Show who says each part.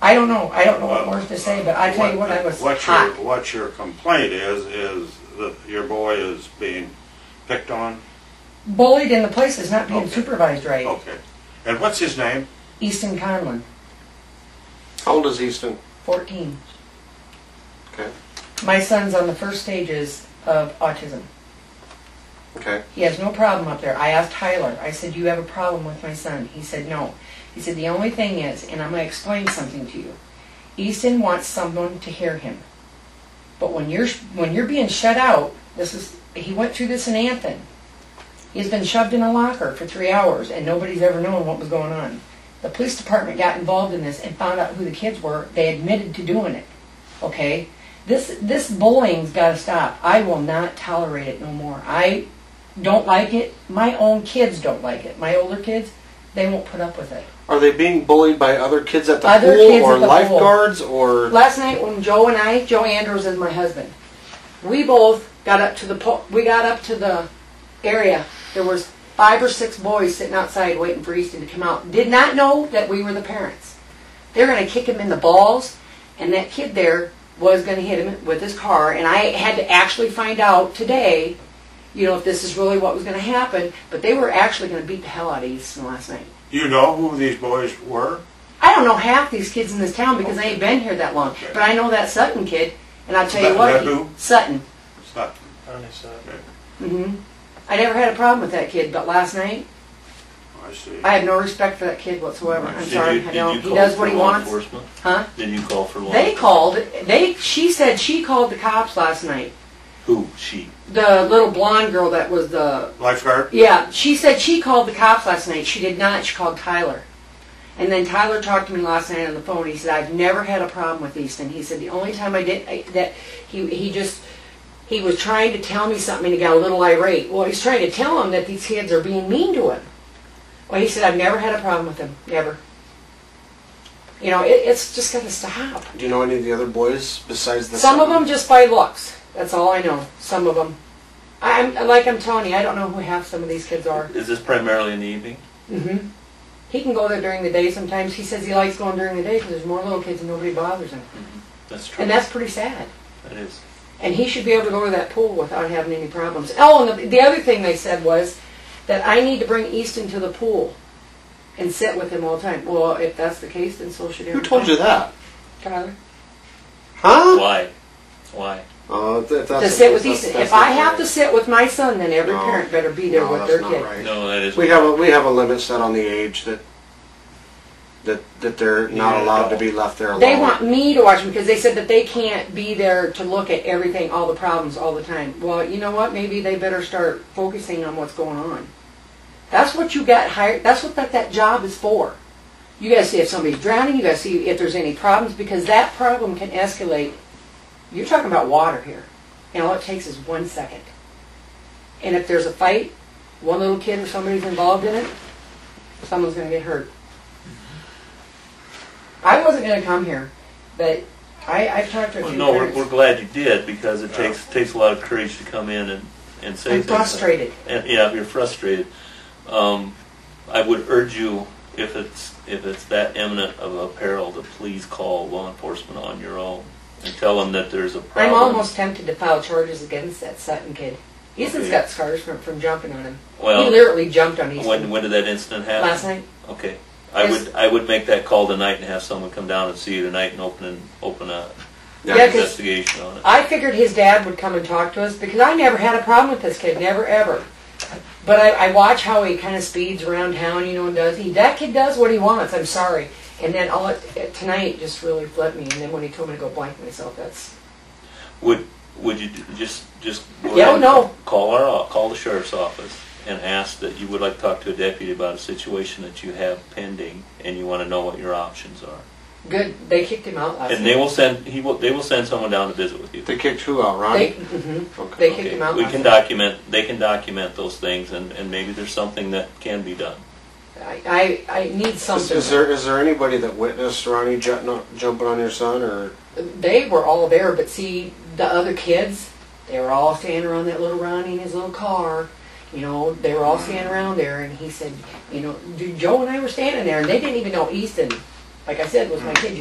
Speaker 1: I don't know, I don't know what words to say, but I tell you what, I was
Speaker 2: What your,
Speaker 1: hot.
Speaker 2: what your complaint is, is that your boy is being picked on?
Speaker 1: Bullied in the place is not being
Speaker 2: Okay.
Speaker 1: supervised right.
Speaker 2: Okay. And what's his name?
Speaker 1: Easton Conlon,
Speaker 3: How old is Easton?
Speaker 1: fourteen.
Speaker 3: Okay.
Speaker 1: My son's on the first stages of autism.
Speaker 3: Okay.
Speaker 1: He has no problem up there. I asked Tyler, I said, Do you have a problem with my son? He said, No. He said, The only thing is, and I'm going to explain something to you Easton wants someone to hear him. But when you're, when you're being shut out, this is, he went through this in Anthon. He's been shoved in a locker for three hours and nobody's ever known what was going on. The police department got involved in this and found out who the kids were. They admitted to doing it. Okay? This, this bullying's got to stop. I will not tolerate it no more. I don't like it. My own kids don't like it. My older kids, they won't put up with it.
Speaker 3: Are they being bullied by other kids at the
Speaker 1: Other
Speaker 3: pool
Speaker 1: kids
Speaker 3: or
Speaker 1: at the pool.
Speaker 3: lifeguards or?
Speaker 1: Last night when Joe and I, Joe Andrews is my husband, we both got up to the po- we got up to the area. There was five or six boys sitting outside waiting for Easton to come out. Did not know that we were the parents. They're gonna kick him in the balls, and that kid there was gonna hit him with his car. And I had to actually find out today, you know, if this is really what was gonna happen. But they were actually gonna beat the hell out of Easton last night.
Speaker 2: Do you know who these boys were?
Speaker 1: I don't know half these kids in this town because they ain't been here that long.
Speaker 2: Okay.
Speaker 1: But I know that Sutton kid, and I'll tell you
Speaker 2: That-
Speaker 1: what,
Speaker 2: that
Speaker 1: he-
Speaker 2: who?
Speaker 1: Sutton.
Speaker 2: It's not-
Speaker 1: hmm I never had a problem with that kid, but last night
Speaker 2: I see.
Speaker 1: I have no respect for that kid whatsoever. I'm
Speaker 4: Did
Speaker 1: sorry,
Speaker 4: you-
Speaker 1: I
Speaker 4: did
Speaker 1: don't.
Speaker 4: you
Speaker 1: He
Speaker 4: call
Speaker 1: does
Speaker 4: for
Speaker 1: what he
Speaker 4: law
Speaker 1: wants,
Speaker 4: enforcement?
Speaker 1: huh?
Speaker 4: Did you call for law?
Speaker 1: They called. They. She said she called the cops last night.
Speaker 4: Who? She.
Speaker 1: The little blonde girl that was the
Speaker 2: Lifeguard?
Speaker 1: Yeah, she said she called the cops last night. She did not. She called Tyler. And then Tyler talked to me last night on the phone. He said, "I've never had a problem with Easton." He said, "The only time I did I, that, he he just he was trying to tell me something and he got a little irate. Well, he's trying to tell him that these kids are being mean to him. Well, he said, "I've never had a problem with him. Never. You know, it, it's just got to stop.
Speaker 3: Do you know any of the other boys besides the?
Speaker 1: Some of
Speaker 3: son?
Speaker 1: them just by looks. That's all I know. Some of them. I'm like I'm telling you, I don't know who half some of these kids are."
Speaker 4: Is this primarily in the evening?
Speaker 1: hmm He can go there during the day sometimes. He says he likes going during the day because there's more little kids and nobody bothers him.
Speaker 4: That's true.
Speaker 1: And that's pretty sad.
Speaker 4: That is.
Speaker 1: And he should be able to go to that pool without having any problems. Oh, and the, the other thing they said was that I need to bring Easton to the pool and sit with him all the time. Well, if that's the case, then so should
Speaker 3: Who
Speaker 1: everybody.
Speaker 3: told you that?
Speaker 1: Tyler.
Speaker 3: Huh?
Speaker 4: Why? Why?
Speaker 3: Uh, if that's
Speaker 1: To sit with
Speaker 3: that's-
Speaker 1: Easton.
Speaker 3: that's
Speaker 1: If I
Speaker 3: not
Speaker 1: have
Speaker 3: right.
Speaker 1: to sit with my son, then every
Speaker 3: No.
Speaker 1: parent better be there
Speaker 3: No,
Speaker 1: with
Speaker 3: that's
Speaker 1: their
Speaker 3: not
Speaker 1: kid.
Speaker 3: right.
Speaker 4: No, that is.
Speaker 3: We have a we have a limit set on the age that that that they're not
Speaker 2: Yeah,
Speaker 3: allowed to
Speaker 2: no.
Speaker 3: be left there alone.
Speaker 1: They want me to watch them because they said that they can't be there to look at everything, all the problems, all the time. Well, you know what? Maybe they better start focusing on what's going on. That's what you got hired. That's what that, that job is for. You got to see if somebody's drowning. You got to see if there's any problems because that problem can escalate. You're talking about water here, and all it takes is one second. And if there's a fight, one little kid or somebody's involved in it, someone's going to get hurt. I wasn't going to come here, but I, I've talked to a
Speaker 4: Well,
Speaker 1: few
Speaker 4: no, we're,
Speaker 1: parents.
Speaker 4: we're glad you did because it takes takes a lot of courage to come in and and say
Speaker 1: I'm
Speaker 4: things like-
Speaker 1: frustrated.
Speaker 4: And, yeah, if you're frustrated, um, I would urge you if it's if it's that imminent of a peril to please call law enforcement on your own and tell them that there's a problem.
Speaker 1: I'm almost tempted to file charges against that Sutton kid. Easton's
Speaker 4: Okay.
Speaker 1: got scars from, from jumping on him. he
Speaker 4: well.
Speaker 1: literally jumped on Easton
Speaker 4: When when did that incident happen?
Speaker 1: last night.
Speaker 4: Okay. I
Speaker 1: Yes.
Speaker 4: would, I would make that call tonight and have someone come down and see you tonight and open, an open a
Speaker 3: Yeah,
Speaker 1: Yeah, 'cause
Speaker 4: investigation on it.
Speaker 1: I figured his dad would come and talk to us because I never had a problem with this kid, never ever. But I, I watch how he kind of speeds around town, you know, and does he? That kid does what he wants. I'm sorry. And then all it, it- tonight just really flipped me. And then when he told me to go blank myself, that's
Speaker 4: Would, would you d- just, just? go
Speaker 1: Yeah,
Speaker 4: ahead and
Speaker 1: no.
Speaker 4: Call our, o- call the sheriff's office and ask that you would like to talk to a deputy about a situation that you have pending and you want to know what your options are.
Speaker 1: good. They kicked him out last
Speaker 4: And they
Speaker 1: night.
Speaker 4: will send, he will, they will send someone down to visit with you.
Speaker 3: They kicked who out,
Speaker 1: They,
Speaker 3: Ronnie?
Speaker 1: hmm
Speaker 3: okay.
Speaker 1: they kicked
Speaker 4: Okay,
Speaker 1: him out.
Speaker 4: We
Speaker 1: last
Speaker 4: can
Speaker 1: night.
Speaker 4: document, they can document those things and, and maybe there's something that can be done.
Speaker 1: I, I, I need
Speaker 3: Is,
Speaker 1: something.
Speaker 3: is there is there anybody that witnessed Ronnie ju- jumping on your son or?
Speaker 1: they were all there, but see, the other kids, they were all standing around that little Ronnie in his little car. You know, they were all standing around there, and he said, you know, Joe and I were standing there, and they didn't even know Easton, like I said, was my kid.